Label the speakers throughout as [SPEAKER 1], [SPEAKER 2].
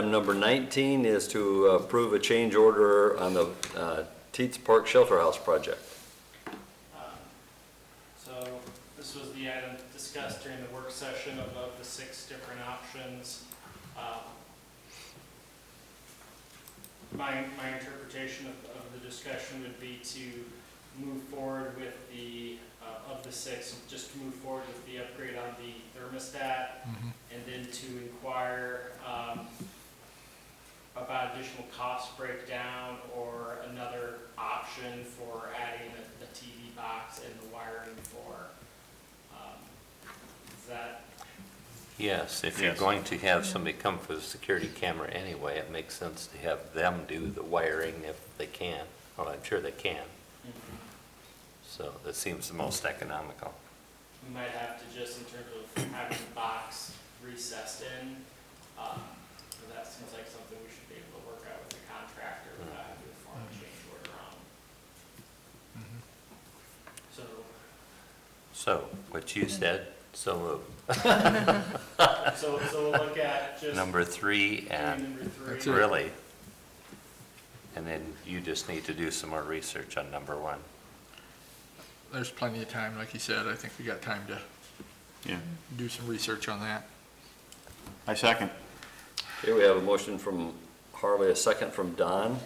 [SPEAKER 1] Item number 19 is to approve a change order on the uh, Teats Park Shelter House project.
[SPEAKER 2] Um, So this was the item discussed during the work session of of the six different options. Um, My, my interpretation of, of the discussion would be to move forward with the, uh, of the six, just to move forward with the upgrade on the thermostat and then to inquire um, about additional cost breakdown or another option for adding a, a TV box and the wiring for, um, is that,
[SPEAKER 3] Yes, if you're
[SPEAKER 4] Yes.
[SPEAKER 3] going to have somebody come for the security camera anyway, it makes sense to have them do the wiring if they can. Well, I'm sure they can, so that seems the most economical.
[SPEAKER 2] we might have to just in terms of having the box recessed in, um, so that seems like something we should be able to work out with the contractor without having to form a change order on. So,
[SPEAKER 3] So, what you said, so moved.
[SPEAKER 2] so, so we'll look at just
[SPEAKER 3] number three and
[SPEAKER 2] number three.
[SPEAKER 3] really. And then you just need to do some more research on number one.
[SPEAKER 5] There's plenty of time, like you said, I think we got time to
[SPEAKER 4] Yeah,
[SPEAKER 5] do some research on that.
[SPEAKER 4] I second.
[SPEAKER 1] Here we have a motion from Harley, a second from Don.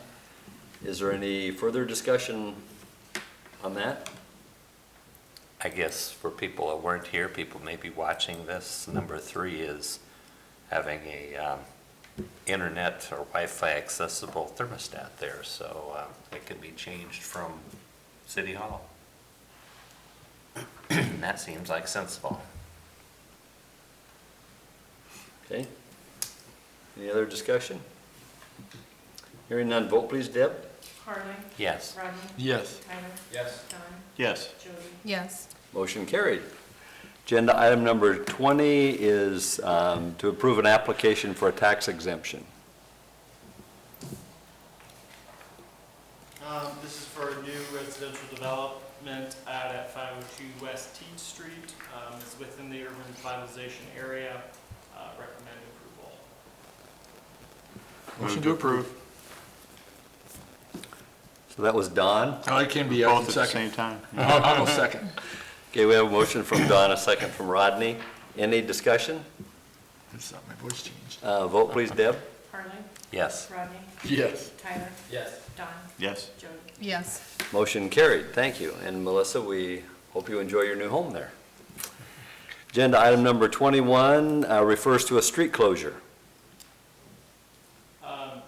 [SPEAKER 1] Is there any further discussion on that?
[SPEAKER 3] I guess for people that weren't here, people may be watching this, number three is having a um, internet or Wi-Fi accessible thermostat there, so uh, it can be changed from City Hall. That seems like sensible.
[SPEAKER 1] Okay. Any other discussion? Hearing none, vote please, Deb.
[SPEAKER 6] Harley.
[SPEAKER 3] Yes,
[SPEAKER 6] Rodney.
[SPEAKER 5] Yes,
[SPEAKER 6] Tyler.
[SPEAKER 2] Yes.
[SPEAKER 6] Don.
[SPEAKER 4] Yes,
[SPEAKER 6] Jody.
[SPEAKER 7] Yes,
[SPEAKER 1] Motion carried. Agenda item number 20 is um, to approve an application for a tax exemption.
[SPEAKER 2] Um, this is for a new residential development out at five oh two West Teach Street. Um, it's within the urban revitalization area. Uh, recommend approval.
[SPEAKER 5] motion to approve.
[SPEAKER 1] So that was Don.
[SPEAKER 5] Oh, it can be, I can
[SPEAKER 4] both at the
[SPEAKER 5] second. Uh-huh.
[SPEAKER 4] same time.
[SPEAKER 5] I'll I'll second.
[SPEAKER 1] Okay, we have a motion from Don, a second from Rodney. Any discussion?
[SPEAKER 5] It's not, my voice changed.
[SPEAKER 1] Uh, Vote please, Deb.
[SPEAKER 6] Harley.
[SPEAKER 3] yes.
[SPEAKER 6] Rodney.
[SPEAKER 5] Yes,
[SPEAKER 6] Tyler.
[SPEAKER 2] Yes.
[SPEAKER 6] Don.
[SPEAKER 4] Yes,
[SPEAKER 6] Jody.
[SPEAKER 7] yes.
[SPEAKER 1] Motion carried, thank you. And Melissa, we hope you enjoy your new home there. Agenda item number 21 uh, refers to a street closure.
[SPEAKER 2] Um,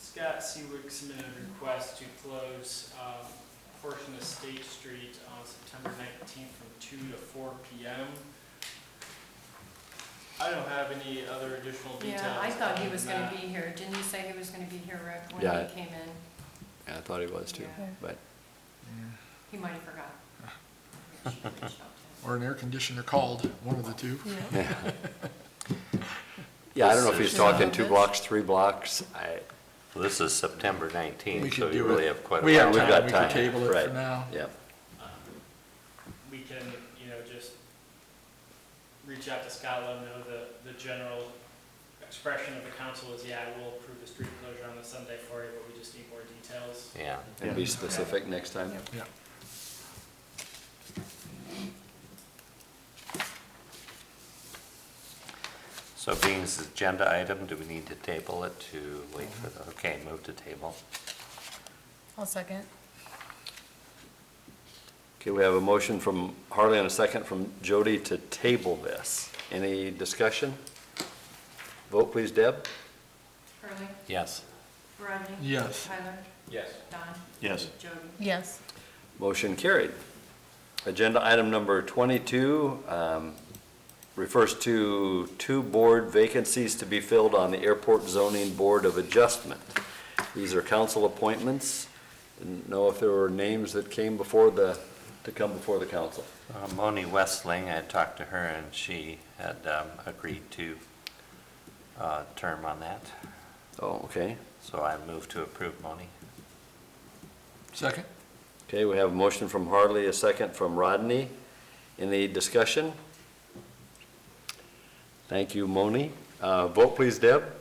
[SPEAKER 2] Scott Seawick submitted a request to close, um, a portion of State Street on September nineteenth from two to four P M. I don't have any other additional details.
[SPEAKER 6] Yeah, I thought he
[SPEAKER 2] other
[SPEAKER 6] was
[SPEAKER 2] than
[SPEAKER 6] gonna
[SPEAKER 2] that.
[SPEAKER 6] be here. Didn't you say he was gonna be here, Rick, when
[SPEAKER 1] Yeah.
[SPEAKER 6] he came in?
[SPEAKER 1] Yeah, I thought he was too,
[SPEAKER 6] Yeah.
[SPEAKER 1] but
[SPEAKER 6] He might have forgot. Maybe she reached out to him.
[SPEAKER 5] or an air conditioner called, one of the two.
[SPEAKER 7] Yeah.
[SPEAKER 1] yeah, I don't know if
[SPEAKER 3] This
[SPEAKER 1] he's
[SPEAKER 7] is-
[SPEAKER 1] talking two blocks, three blocks. I,
[SPEAKER 3] This is September 19th,
[SPEAKER 5] We
[SPEAKER 3] so
[SPEAKER 5] could
[SPEAKER 3] you
[SPEAKER 5] do
[SPEAKER 3] really
[SPEAKER 5] it.
[SPEAKER 3] have quite a
[SPEAKER 5] We
[SPEAKER 3] lot
[SPEAKER 5] have
[SPEAKER 3] of
[SPEAKER 1] We've
[SPEAKER 3] time.
[SPEAKER 1] got
[SPEAKER 5] time, we
[SPEAKER 1] time,
[SPEAKER 5] can table it
[SPEAKER 1] right.
[SPEAKER 5] for now.
[SPEAKER 1] yeah.
[SPEAKER 2] Um, we can, you know, just reach out to Scott, let him know the, the general expression of the council is, yeah, we'll approve the street closure on the Sunday for you, but we just need more details.
[SPEAKER 3] Yeah,
[SPEAKER 1] And be specific next time.
[SPEAKER 5] Yeah.
[SPEAKER 3] so being this agenda item, do we need to table it to wait for the, okay, move to table.
[SPEAKER 7] I'll second.
[SPEAKER 1] Okay, we have a motion from Harley and a second from Jody to table this. Any discussion? Vote please, Deb.
[SPEAKER 6] Harley.
[SPEAKER 3] Yes.
[SPEAKER 6] Rodney.
[SPEAKER 5] Yes.
[SPEAKER 6] Tyler.
[SPEAKER 2] Yes.
[SPEAKER 6] Don.
[SPEAKER 4] yes,
[SPEAKER 6] Jody.
[SPEAKER 7] Yes,
[SPEAKER 1] Motion carried. Agenda item number 22 um, refers to two board vacancies to be filled on the Airport Zoning Board of Adjustment. These are council appointments. Didn't know if there were names that came before the, to come before the council.
[SPEAKER 3] Uh, Moni Westling, I had talked to her, and she had um, agreed to uh, term on that,
[SPEAKER 1] Oh, okay.
[SPEAKER 3] so I move to approve Moni.
[SPEAKER 5] Second?
[SPEAKER 1] Okay, we have a motion from Harley, a second from Rodney. Any discussion? Thank you, Moni. Uh, Vote please, Deb.